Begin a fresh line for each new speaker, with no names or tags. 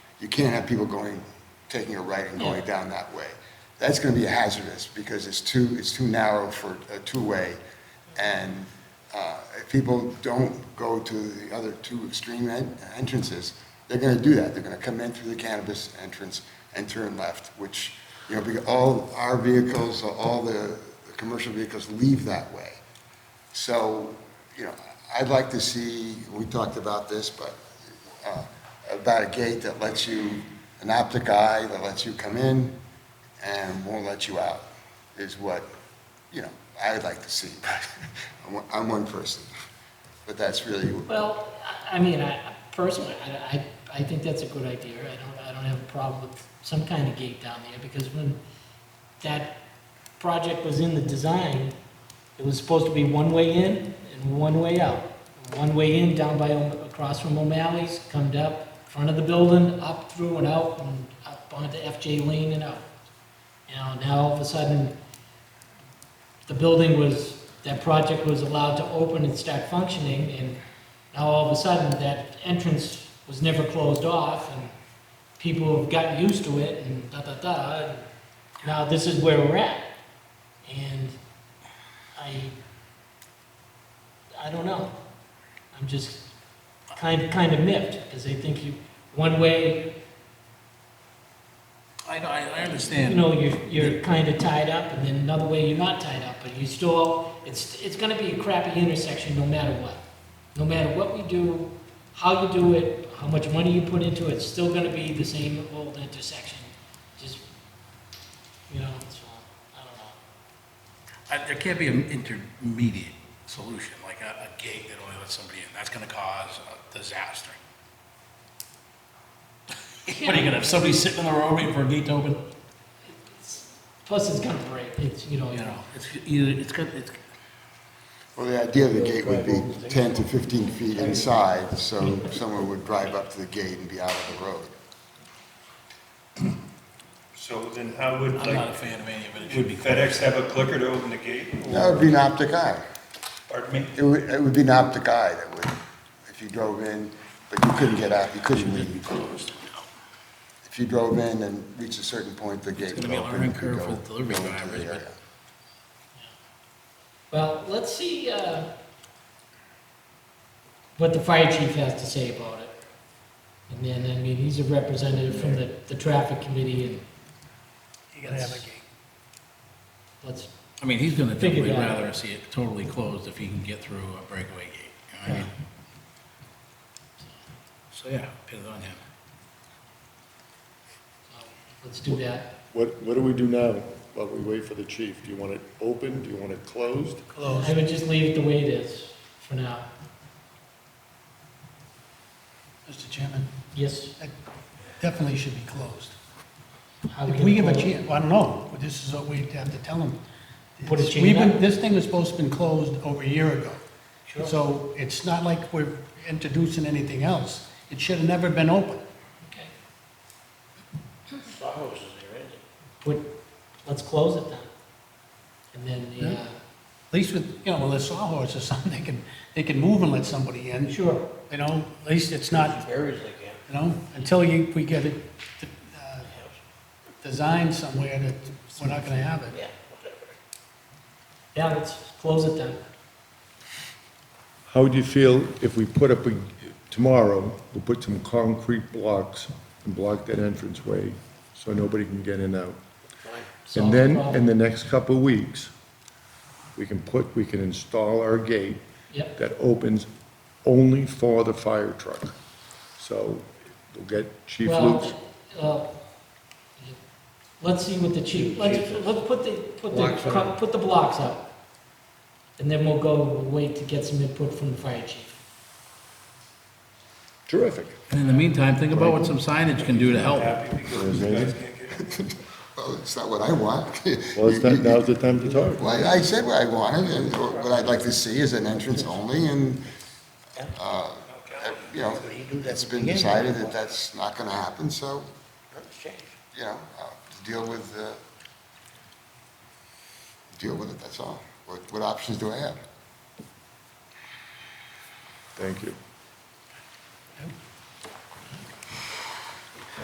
You can't have people going, taking a right and going down that way. That's gonna be hazardous, because it's too, it's too narrow for a two-way, and, uh, if people don't go to the other two extreme en- entrances, they're gonna do that, they're gonna come in through the cannabis entrance and turn left, which, you know, because all our vehicles, all the commercial vehicles leave that way. So, you know, I'd like to see, we talked about this, but, uh, about a gate that lets you, an optic eye that lets you come in and won't let you out, is what, you know, I would like to see. I'm one- I'm one person, but that's really,
Well, I, I mean, I, personally, I, I, I think that's a good idea. I don't, I don't have a problem with some kind of gate down there, because when that project was in the design, it was supposed to be one way in and one way out. One way in down by, O'M- across from O'Malley's, come up, front of the building, up through and out, and up onto FJ Lane and out. You know, now all of a sudden, the building was, that project was allowed to open and start functioning, and now all of a sudden, that entrance was never closed off, and people have gotten used to it, and da-da-da, and now this is where we're at. And I, I don't know. I'm just kind, kind of miffed, because I think you, one way,
I, I, I
you
understand.
know, you're, you're kind of tied up, and then another way you're not tied up, but you still, it's, it's gonna be a crappy intersection no matter what. No matter what we do, how you do it, how much money you put into it, it's still gonna be the same old intersection. Just, you know, so, I don't know.
I- There can't be an intermediate solution, like a, a gate that only lets somebody in. That's gonna cause a disaster. What, are you gonna have somebody sitting in the road waiting for a gate to open?
Plus, it's gonna break, it's, you know,
You know, it's either, it's gonna, it's,
well, the idea of the gate would be 10 to 15 feet inside, so someone would drive up to the gate and be out of the road.
So then how would,
I'm not a E
like,
fan of any of it. It
would
should be
FedEx have a clicker to open the gate?
That would be an optic eye.
Pardon me?
It would, it would be an optic eye that would, if you drove in, but you couldn't get out, you couldn't leave. If you drove in and reached a certain point, the gate
gonna
would
be a
open, you
learning
could
curve
go
for
go
delivery
into the
drivers, but-
area.
well, let's see, uh, what the fire chief has to say about it. And then, I mean, he's a representative from the, the traffic committee and. You gotta have a gate. Let's,
I mean, he's gonna
Figure
definitely
it out.
rather see it totally closed if he can get through a breakaway gate. you know what I mean? So, yeah, pin it on him.
so, uh, let's do that.
What, what do we do now while we wait for the chief? Do you want it open? Do you want it closed?
I would just leave it the way it is for now.
Mr. Chairman,
Yes,
definitely should be closed.
how we
If
can.
we give a
close-
chance, I don't know, but this is what we have to tell them.
Put a chain
We've been-
up.
This thing was supposed to been closed over a year ago.
Sure.
So it's not like we're introducing anything else. It should have never been open.
Okay. Put, let's close it then. And then the, uh,
At least with, you know, with a sawhorse or something, they can, they can move and let somebody in.
Sure.
You know, at least it's not, you know, until you, we get it, uh, designed somewhere that we're not gonna have it.
yeah, let's close it then.
How would you feel if we put up, a tomorrow, we put some concrete blocks and block that entranceway so nobody can get in and out?
Solve
And
the
then,
problem.
in the next couple of weeks, we can put, we can install our gate
Yep.
that opens only for the fire truck. So we'll get Chief Luke's,
Well, uh, Let's see what the chief, let's, let's put the, put the, put the blocks up. And then we'll go, wait to get some input from the fire chief.
terrific.
And in the meantime, think about what some signage can do to help.
Happy because you guys can't get in.
Well, it's not what I want.
Well, it's not, now's the time to talk.
Well, I I said what I wanted, and what I'd like to see is an entrance only, and, uh, you know, it's been decided that that's not gonna happen, so, you know, uh, deal with, uh, deal with it, that's all. What, what options do I have?
Thank you.